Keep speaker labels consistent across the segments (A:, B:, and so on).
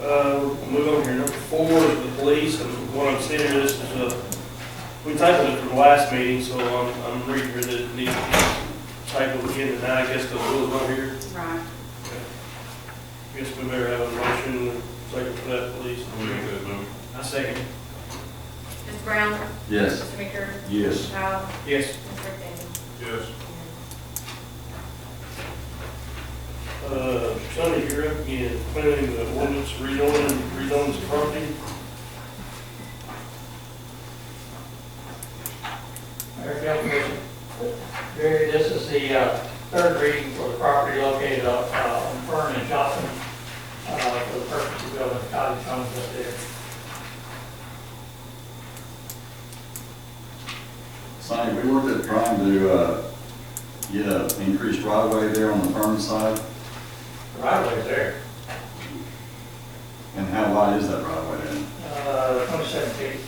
A: Uh, move on here, number four is the police, and what I'm seeing here, this is a, we titled it from last meeting, so I'm, I'm reading here that it needs to be titled again tonight, I guess, because it was not here.
B: Right.
A: I Guess we better have a motion, second for that, please. I second.
B: Mr. Brown?
C: Yes.
B: Mr. Meeker?
C: Yes.
B: Mr. Powell?
A: Yes.
B: Mr. McDaniel?
D: Yes.
A: Uh, Sonny, you're up again, planning the ordinance, rezoning, rezoning the property.
E: Mayor Councilman, Barry, this is the uh, third reading for the property located up, uh, on Fern and Johnson, uh, for the purpose of building cottage homes up there.
C: Sonny, we looked at trying to, uh, get a increased right way there on the Fern side,
E: The right of way's there,
C: and how wide is that right way then?
E: uh, twenty-seven feet,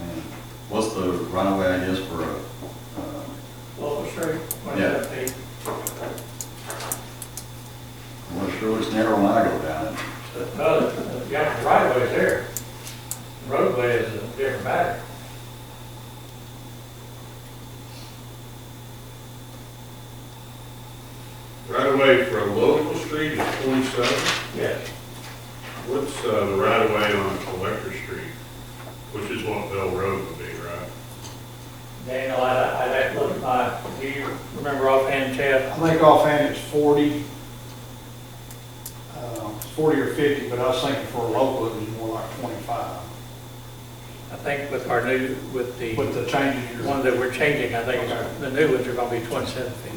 C: And What's the right of way, I guess, for a, uh,
E: local street, twenty-seven feet.
C: well, it sure it's narrow when I go down it.
E: No, the- yeah, the right of way's there. The Roadway is a different matter.
D: Right away from local street is twenty-seven.
E: Yes,
D: What's, uh, the right of way on Collector Street, which is what Bell Road would be, right?
E: Daniel, I, I, I'd have to look at my, do you remember offhand, Chad?
F: I think offhand it's forty, uh, it's forty or fifty, but I was thinking for a local, it was more like twenty-five.
E: I think with our new, with the.
F: With the changes
E: The
F: you're.
E: one that we're changing, I think, is- the new ones are gonna be twenty-seven feet.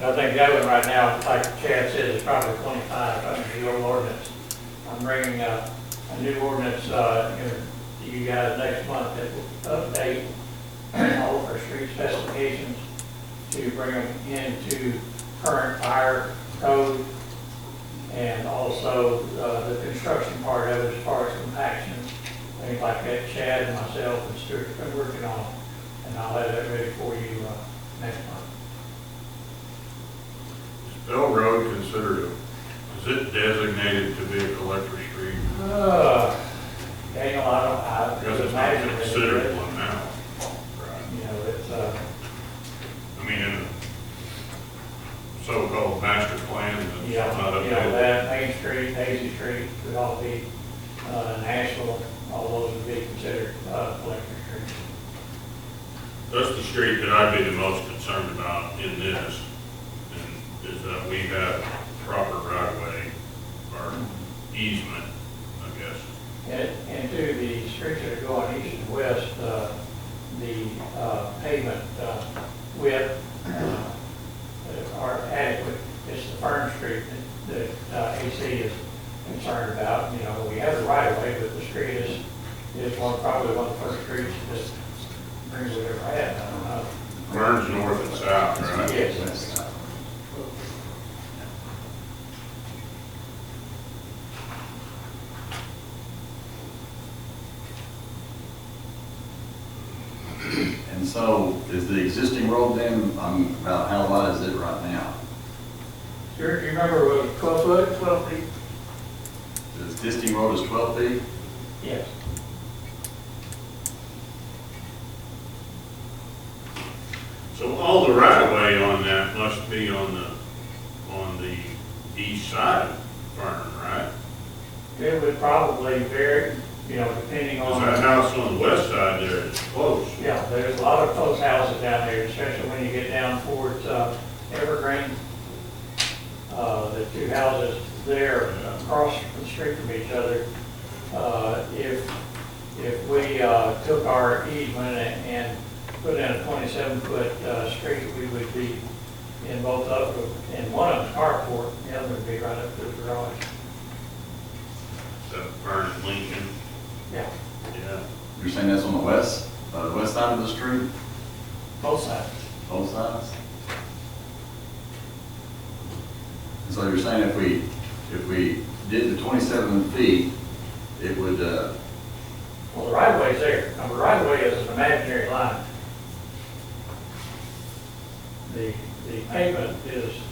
E: And I think that one right now, like Chad said, is probably twenty-five under the old ordinance. I'm bringing uh, a new ordinance, uh, you- to you guys next month that will update all of our street specifications to bring them into current fire code and also uh, the construction part of it as far as compaction, things like that. Chad and myself and Stuart have been working on it and I'll have that ready for you uh, next month.
D: Is Bell Road considered, a- is it designated to be a Collector Street?
E: Uh, Daniel, I don't, I
D: Because
E: would
D: it's not
E: imagine that it
D: considered
E: is.
D: one now. Right.
E: You know, it's, uh,
D: I mean, in a so-called master plan
E: you
D: that's not
E: know, you know,
D: updated.
E: that Main Street, Daisy Street would all be uh, Nashville, all those would be considered uh, collector streets.
D: That's the street that I'd be the most concerned about in this, and is that we have proper right-of-way or easement, I guess.
E: And, and to the streets that are going east and west, uh, the uh, pavement uh, width uh, are adequate. It's the Fern Street that, that uh, AC is concerned about, you know, we have the right of way, but the street is, is one, probably one of the first streets that brings it ever had, I don't know.
D: Burns north and south, right?
E: Yes.
C: And so, is the existing road then, um, about how wide is it right now?
E: Do you remember it was twelve foot? Twelve feet.
C: The existing road is twelve feet?
E: Yes.
D: So all the right-of-way on that must be on the, on the east side of Fern, right?
E: It would probably vary, you know, depending on.
D: Because that house on the west side there is close.
E: Yeah, there's a lot of close houses down there, especially when you get down towards uh, Evergreen. Uh, The two houses there across the street from each other. Uh, If, if we uh, took our easement and and put in a 27-foot street, we would be in both of them, in one of them carport, the other would be right up to the garage.
D: That Fern and Lincoln,
E: Yeah,
D: yeah.
C: You're saying that's on the west, uh, the west side of the street,
E: both sides.
C: both sides? And so you're saying if we, if we did the twenty-seven feet, it would, uh,
E: Well, the right of way's there. Now, the right of way is an imaginary line. The, the pavement is